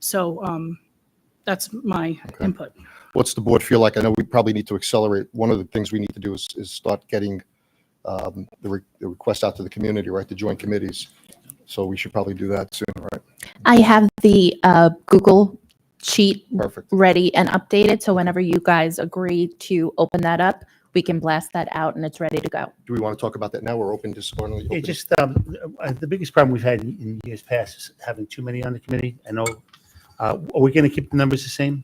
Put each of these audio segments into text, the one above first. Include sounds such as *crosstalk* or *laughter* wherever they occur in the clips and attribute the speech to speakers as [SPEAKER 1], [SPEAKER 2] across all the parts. [SPEAKER 1] So um, that's my
[SPEAKER 2] Okay.
[SPEAKER 1] input.
[SPEAKER 2] What's the board feel like? I know we probably need to accelerate. One of the things we need to do is, is start getting um, the re- the request out to the community, right, the joint committees. So we should probably do that soon, right?
[SPEAKER 3] I have the uh, Google sheet
[SPEAKER 2] Perfect.
[SPEAKER 3] ready and updated, so whenever you guys agree to open that up, we can blast that out and it's ready to go.
[SPEAKER 2] Do we want to talk about that now or open this? or only
[SPEAKER 4] Yeah,
[SPEAKER 2] open-
[SPEAKER 4] just, um, uh, the biggest problem we've had in in years past is having too many on the committee. I know, uh, are we going to keep the numbers the same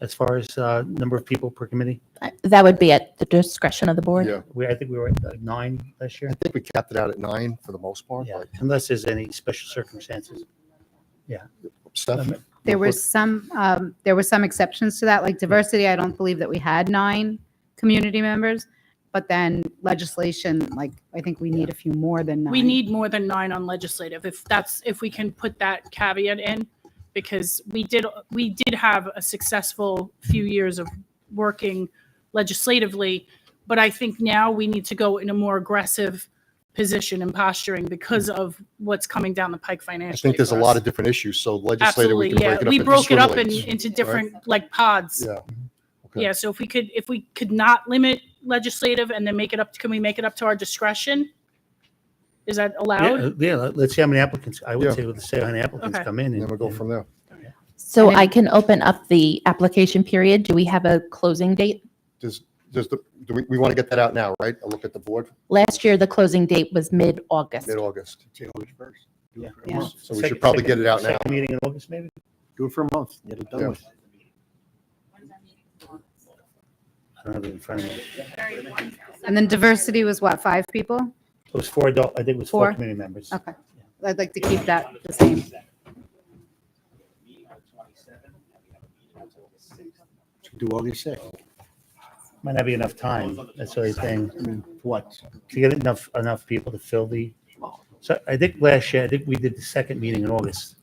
[SPEAKER 4] as far as, uh, number of people per committee?
[SPEAKER 3] I- Uh, That would be at the discretion of the board.
[SPEAKER 2] Yeah,
[SPEAKER 4] We, I think we were at like, nine last year.
[SPEAKER 2] I think we capped it out at nine for the most part.
[SPEAKER 4] Yeah,
[SPEAKER 2] like,
[SPEAKER 4] unless there's any special circumstances.
[SPEAKER 2] Steph?
[SPEAKER 4] Um,
[SPEAKER 5] There
[SPEAKER 2] real quick.
[SPEAKER 5] was some, um, there were some exceptions to that, like diversity, I don't believe that we had nine community members. But then legislation, like, I think we need a few more than nine.
[SPEAKER 1] We need more than nine on legislative, if that's, if we can put that caveat in, because we did, we did have a successful few years of working legislatively, but I think now we need to go in a more aggressive position and posturing because of what's coming down the pike
[SPEAKER 2] I
[SPEAKER 1] financially.
[SPEAKER 2] think there's a
[SPEAKER 1] for
[SPEAKER 2] lot
[SPEAKER 1] us.
[SPEAKER 2] of different issues, so legislator, we
[SPEAKER 1] Absolutely,
[SPEAKER 2] can
[SPEAKER 1] yeah.
[SPEAKER 2] break it up.
[SPEAKER 1] We
[SPEAKER 2] into
[SPEAKER 1] broke it up in,
[SPEAKER 2] swim lanes.
[SPEAKER 1] into different, like, pods.
[SPEAKER 2] Yeah. Okay.
[SPEAKER 1] Yeah, so if we could, if we could not limit legislative and then make it up, can we make it up to our discretion? Is that allowed?
[SPEAKER 4] Yeah, uh, yeah, let's see how many applicants, I
[SPEAKER 2] Yeah.
[SPEAKER 4] would say, let's see how many applicants
[SPEAKER 1] Okay.
[SPEAKER 4] come in.
[SPEAKER 2] And then
[SPEAKER 4] and-
[SPEAKER 2] we'll go
[SPEAKER 4] and-
[SPEAKER 2] from there.
[SPEAKER 3] So
[SPEAKER 5] And then-
[SPEAKER 3] I can open up the application period. Do we have a closing date?
[SPEAKER 2] Does, does the, do we, we want to get that out now, right? A look at the board,
[SPEAKER 3] Last year, the closing date was mid-August.
[SPEAKER 2] mid-August.
[SPEAKER 4] Yeah.
[SPEAKER 5] Yeah.
[SPEAKER 2] So we
[SPEAKER 4] Second-
[SPEAKER 2] should probably get
[SPEAKER 4] second-
[SPEAKER 2] it out now.
[SPEAKER 4] second Meeting in August, maybe?
[SPEAKER 6] Do it for a month, get it
[SPEAKER 2] Yeah.
[SPEAKER 6] done with.
[SPEAKER 4] I don't have it in front of me.
[SPEAKER 5] And then diversity was what, five people?
[SPEAKER 4] It was four adult, I think it was four
[SPEAKER 5] Four.
[SPEAKER 4] committee members.
[SPEAKER 5] Okay. I'd like to keep that the same.
[SPEAKER 6] Do August sixth.
[SPEAKER 4] Might not be enough time, that's the only thing.
[SPEAKER 6] What?
[SPEAKER 4] to get enough, enough people to fill the, so I think last year, I think we did the second meeting in August.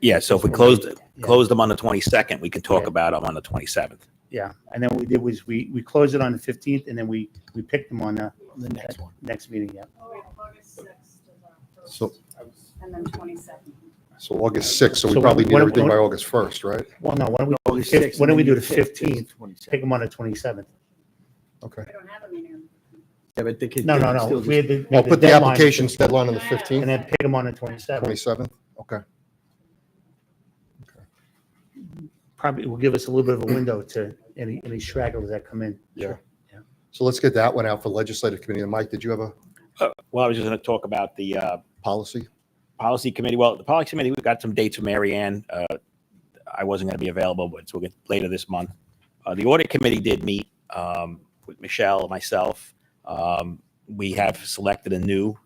[SPEAKER 7] Yeah, so if we closed, closed them on the 22nd, we can talk about them on the 27th.
[SPEAKER 4] Yeah, and then what we did was we, we closed it on the fifteenth and then we, we picked them on the
[SPEAKER 6] The next one.
[SPEAKER 4] next meeting, yeah.
[SPEAKER 2] So,
[SPEAKER 5] And then twenty-seven.
[SPEAKER 2] so August sixth, so we
[SPEAKER 4] So
[SPEAKER 2] probably
[SPEAKER 4] what-
[SPEAKER 2] need
[SPEAKER 4] what-
[SPEAKER 2] everything by August first, right?
[SPEAKER 4] Well, no, why don't we,
[SPEAKER 6] August
[SPEAKER 4] Fif-
[SPEAKER 6] 6th,
[SPEAKER 4] why don't
[SPEAKER 6] and
[SPEAKER 4] we
[SPEAKER 6] then
[SPEAKER 4] do the 15th? pick them on the twenty-seventh?
[SPEAKER 2] Okay.
[SPEAKER 5] I don't have a meeting.
[SPEAKER 6] Yeah, but they could.
[SPEAKER 4] No,
[SPEAKER 6] they
[SPEAKER 4] no,
[SPEAKER 6] could
[SPEAKER 4] no,
[SPEAKER 6] still
[SPEAKER 4] we had the.
[SPEAKER 2] Well, put the
[SPEAKER 4] deadline-
[SPEAKER 2] applications deadline on the
[SPEAKER 4] And
[SPEAKER 2] fifteenth,
[SPEAKER 4] then pick them on the twenty-seventh,
[SPEAKER 2] twenty-seventh, okay.
[SPEAKER 4] probably will give us a little bit of a window to any, any stragglers that come in.
[SPEAKER 2] Yeah.
[SPEAKER 4] Yeah.
[SPEAKER 2] So let's get that one out for legislative committee. And Mike, did you have a
[SPEAKER 7] Uh, Well, I was just going to talk about the uh,
[SPEAKER 2] policy?
[SPEAKER 7] policy committee. Well, the policy committee, we've got some dates from Mary Ann. Uh, I wasn't going to be available, but we'll get later this month. Uh, The audit committee did meet um, with Michelle, myself. Um, We have selected a new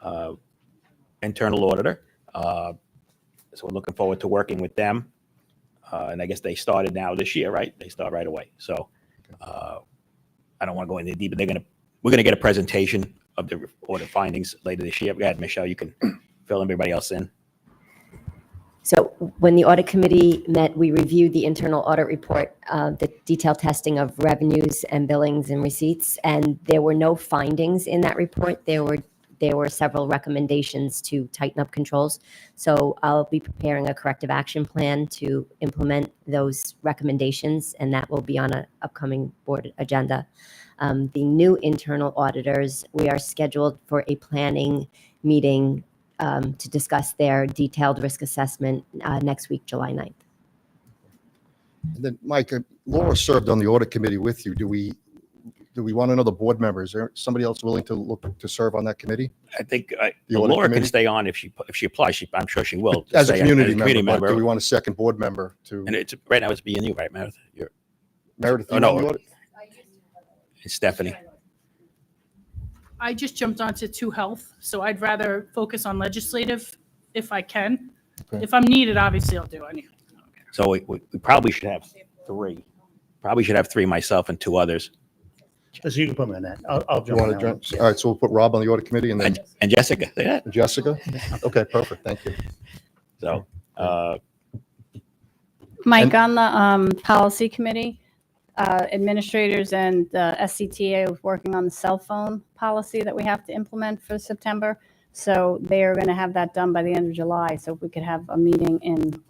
[SPEAKER 7] uh, internal auditor. Uh, So we're looking forward to working with them. Uh, And I guess they started now this year, right? They start right away. So uh, I don't want to go into deep, but they're going to, we're going to get a presentation of the audit findings later this year. Go ahead, Michelle, you can fill everybody else in.
[SPEAKER 8] So when the audit committee met, we reviewed the internal audit report, uh, the detailed testing of revenues and billings and receipts, and there were no findings in that report. There were, there were several recommendations to tighten up controls. So I'll be preparing a corrective action plan to implement those recommendations, and that will be on an upcoming board agenda. Um, The new internal auditors, we are scheduled for a planning meeting um, to discuss their detailed risk assessment uh, next week, July 9th.
[SPEAKER 2] And then, Mike, uh, Laura served on the audit committee with you. Do we, do we want another board member? Is there somebody else willing to look to serve on that committee?
[SPEAKER 7] I think I-
[SPEAKER 2] The audit
[SPEAKER 7] Laura can
[SPEAKER 2] committee?
[SPEAKER 7] stay on if she, if she applies. She, I'm sure she will.
[SPEAKER 2] *laughs* As a
[SPEAKER 7] stay
[SPEAKER 2] community member, but do we want a second board member to
[SPEAKER 7] And it's, right now it's being you, right, Meredith? You're,
[SPEAKER 2] Meredith?
[SPEAKER 7] oh,
[SPEAKER 2] you on
[SPEAKER 7] no.
[SPEAKER 2] the audit?
[SPEAKER 7] it's Stephanie.
[SPEAKER 1] I just jumped onto two health, so I'd rather focus on legislative if I can.
[SPEAKER 2] Okay.
[SPEAKER 1] If I'm needed, obviously I'll do anything.
[SPEAKER 7] So we, we we probably should have three. Probably should have three, myself and two others.
[SPEAKER 4] So you can put me on that, I'll, I'll
[SPEAKER 2] You
[SPEAKER 4] jump on
[SPEAKER 2] want to
[SPEAKER 4] that one.
[SPEAKER 2] join? All right, so we'll put Rob on the audit committee and then
[SPEAKER 7] And and Jessica, see that?
[SPEAKER 2] Jessica? Okay, perfect, thank you.
[SPEAKER 7] So, uh,
[SPEAKER 9] Mike, on the um, policy committee, uh, administrators and uh, the SCTA was working on the cell phone policy that we have to implement for September. So they are going to have that done by the end of July. So if we could have a meeting in